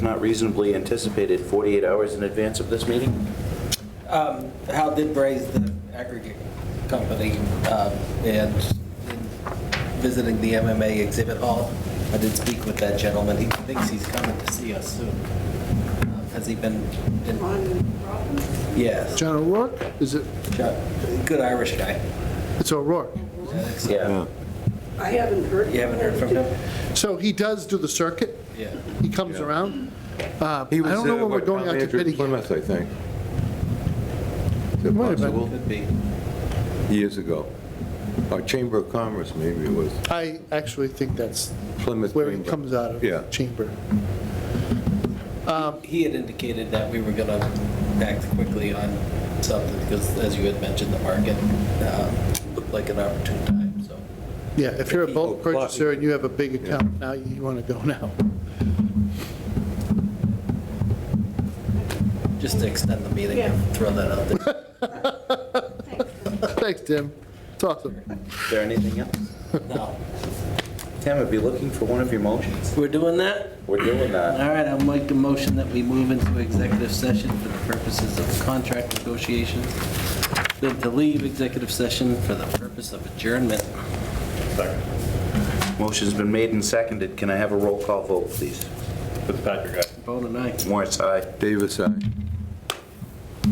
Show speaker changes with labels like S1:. S1: not reasonably anticipated 48 hours in advance of this meeting?
S2: Um, Hal did raise the aggregate company um, and in visiting the MMA exhibit hall. I did speak with that gentleman. He thinks he's coming to see us soon. Uh, Has he been? been-
S3: On Robbins?
S2: Yes.
S4: John O'Rourke? Is it,
S2: Chuck, Good Irish guy.
S4: it's O'Rourke.
S1: Yeah.
S3: I haven't heard.
S2: You haven't heard from him?
S4: So he does do the circuit?
S2: Yeah.
S4: He comes around? Uh, I
S5: He was,
S4: don't know
S5: uh,
S4: when we're
S5: what,
S4: going out to
S5: Commander
S4: bid again.
S5: Plymouth, I think.
S4: It might have been.
S5: Possible.
S2: Could be.
S5: Years ago. Or Chamber of Commerce, maybe it was.
S4: I actually think that's
S5: Plymouth.
S4: where he
S5: Chamber.
S4: comes out of,
S5: Yeah.
S4: chamber.
S2: Um, He had indicated that we were going to act quickly on something because, as you had mentioned, the market um, looked like an opportune time, so.
S4: Yeah, if you're a bulk
S5: Oh, Clark.
S4: purchaser and you have a big account, now you want to go now.
S2: Just to extend the meeting,
S3: Yeah.
S2: throw that out there.
S4: Thanks, Tim. It's awesome.
S1: Is there anything else?
S2: No.
S1: Tim, I'd be looking for one of your motions.
S2: We're doing that?
S1: We're doing
S2: All
S1: that.
S2: right, I'll make a motion that we move into executive session for the purposes of contract negotiations, then to leave executive session for the purpose of adjournment.
S1: Motion's been made and seconded. Can I have a roll call vote, please?
S6: Fitzpatrick, aye.
S2: Bone and I.
S1: Morris, aye.
S5: Davis, aye.